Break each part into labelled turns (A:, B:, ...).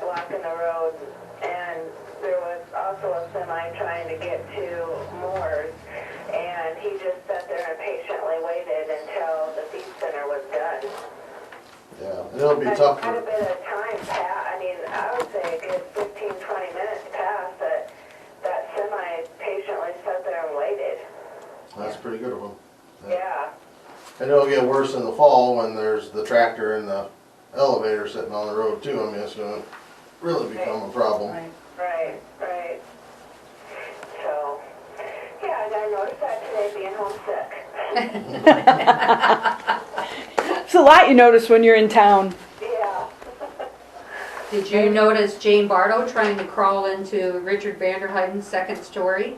A: block in the road, and there was also a semi trying to get to Moore's, and he just sat there and patiently waited until the feed center was done.
B: Yeah, and it'll be
A: But
B: tough
A: Quite a
B: for,
A: bit of time passed, I mean, I would say a good 15, 20 minutes passed, that that semi patiently sat there and waited.
B: that's pretty good of them.
A: Yeah,
B: And it'll get worse in the fall when there's the tractor and the elevator sitting on the road too. I mean, it's gonna really become a problem.
C: Right.
A: right, right. So, yeah, and I noticed that today being homesick.
D: It's a lot you notice when you're in town.
A: Yeah.
C: Did you notice Jane Bardo trying to crawl into Richard Vanderheiden's second story?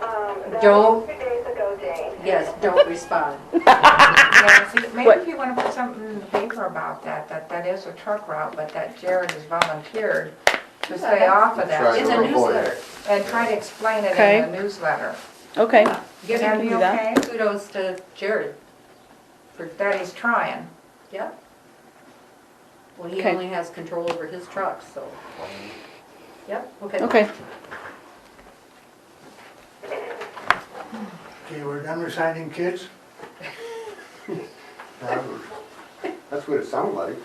A: Um, that
C: Joe?
A: was two days ago, Jane.
C: Yes, don't respond.
E: Yeah, see, maybe
D: What?
E: if you wanna put something in the paper about that, that that is a truck route, but that Jared has volunteered to stay off of
B: Try
C: It's
E: that
C: a
B: to avoid
C: newsletter.
B: it.
E: and try to explain it
D: Okay.
E: in the newsletter.
D: Okay.
E: Would
C: Give
E: that
C: him
E: be
D: do that.
E: okay?
C: kudos to Jared.
E: For- That he's trying.
C: Yeah. Well, he
D: Okay.
C: only has control over his trucks, so. Yep, okay.
D: Okay.
F: Okay, we're done resigning kids?
G: That's what it sounded like.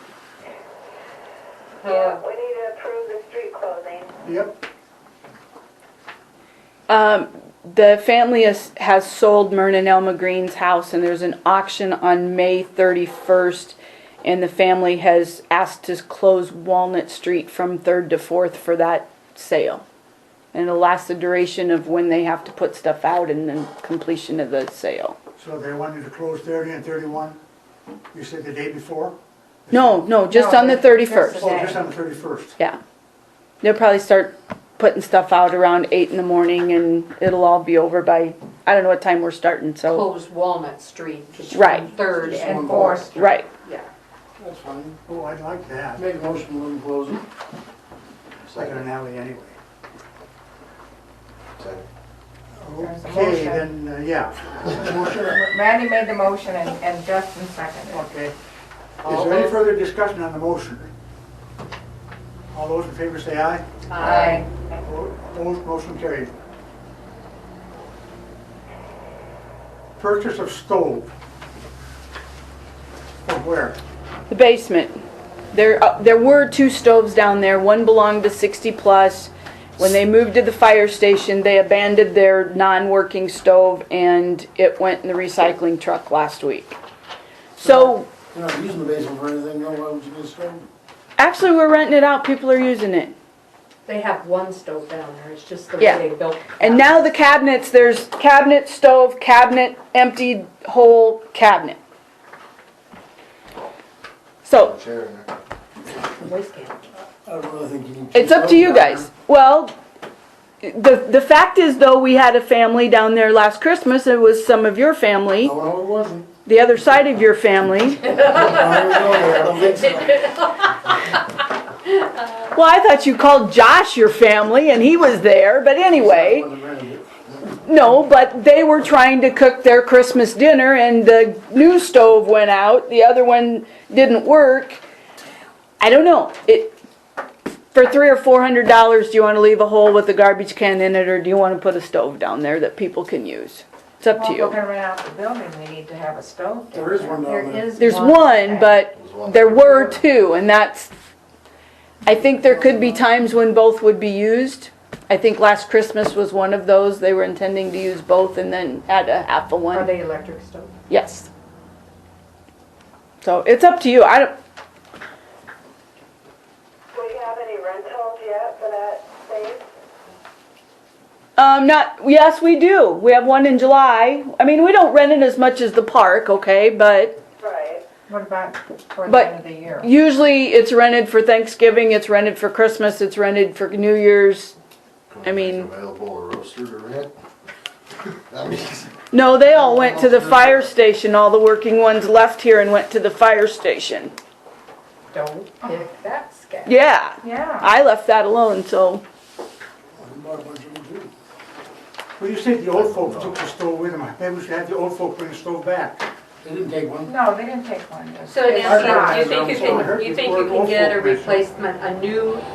A: Yeah, we need to approve the street closing.
F: Yep.
D: Um, the family has, has sold Myrna Elma Green's house, and there's an auction on May 31st. And the family has asked to close Walnut Street from 3rd to 4th for that sale. And it'll last the duration of when they have to put stuff out and then completion of the sale.
F: So they wanted to close thirty and thirty-one, you said the day before?
D: No, no, just
E: No,
D: on the
E: there's- there's a
D: 31st.
F: Oh, just on the thirty-first.
D: Yeah. They'll probably start putting stuff out around eight in the morning and it'll all be over by, I don't know what time we're starting, so.
C: Close Walnut Street between
D: Right.
C: Third
E: Just
C: and
E: one
C: Fourth.
D: Right.
C: Yeah.
F: That's fine. Oh, I'd like that.
G: Make a motion, we'll close it.
F: It's like an alley anyway.
G: Second.
E: There's a
F: Okay,
E: motion.
F: then, uh, yeah. Motion,
E: Randy made the motion and and Justin seconded. it.
F: Okay. Is
C: All
F: there any
C: those-
F: further discussion on the motion? All those in favor say aye.
E: Aye.
F: Opposed, motion carried. Purchase of stove. From where?
D: The basement. There, uh, there were two stoves down there. One belonged to 60 Plus. When they moved to the fire station, they abandoned their non-working stove and it went in the recycling truck last week. So
G: You're not using the basement for anything, no, why would you get started?
D: actually, we're renting it out. People are using it.
C: They have one stove down there, it's just the
D: Yeah.
C: way they built.
D: And now the cabinets, there's cabinet, stove, cabinet, emptied whole cabinet. So,
B: Chair in there.
C: Waste can.
G: I don't really think you need.
D: it's up to you guys. Well, the, the fact is though, we had a family down there last Christmas, it was some of your family,
G: No, no, it wasn't.
D: the other side of your family.
G: I don't know, I don't think so.
D: Well, I thought you called Josh your family and he was there, but anyway.
G: Wasn't ready.
D: No, but they were trying to cook their Christmas dinner and the new stove went out, the other one didn't work. I don't know, it, for three or four hundred dollars, do you wanna leave a hole with a garbage can in it, or do you wanna put a stove down there that people can use? It's up to
E: Well, if we're
D: you.
E: gonna rent out the building, we need to have a stove.
G: There is one down there.
C: is
D: There's one, but
B: There's one.
D: there were two, and that's, I think there could be times when both would be used. I think last Christmas was one of those, they were intending to use both and then had a half a one.
C: Are they electric stove?
D: Yes. So it's up to you. I don't,
A: Do we have any rentals yet for that space?
D: um, not, yes, we do. We have one in July. I mean, we don't rent it as much as the park, okay, but
A: Right.
E: What about toward the
D: But-
E: end of the year?
D: usually it's rented for Thanksgiving, it's rented for Christmas, it's rented for New Year's. I mean-
B: Available a roaster to rent? That means,
D: No, they all went to the fire station. All the working ones left here and went to the fire station.
C: Don't pick that scat.
D: Yeah,
E: Yeah.
D: I left that alone, so.
G: I bought a bunch of them too.
F: Well, you said the old folks took the stove with them, maybe we should have the old folk bring the stove back.
G: They didn't take one.
E: No, they didn't take one.
C: So
E: They-
G: Nancy,
C: Nancy, do you
G: do
C: think you can, you think you can get a replacement, a new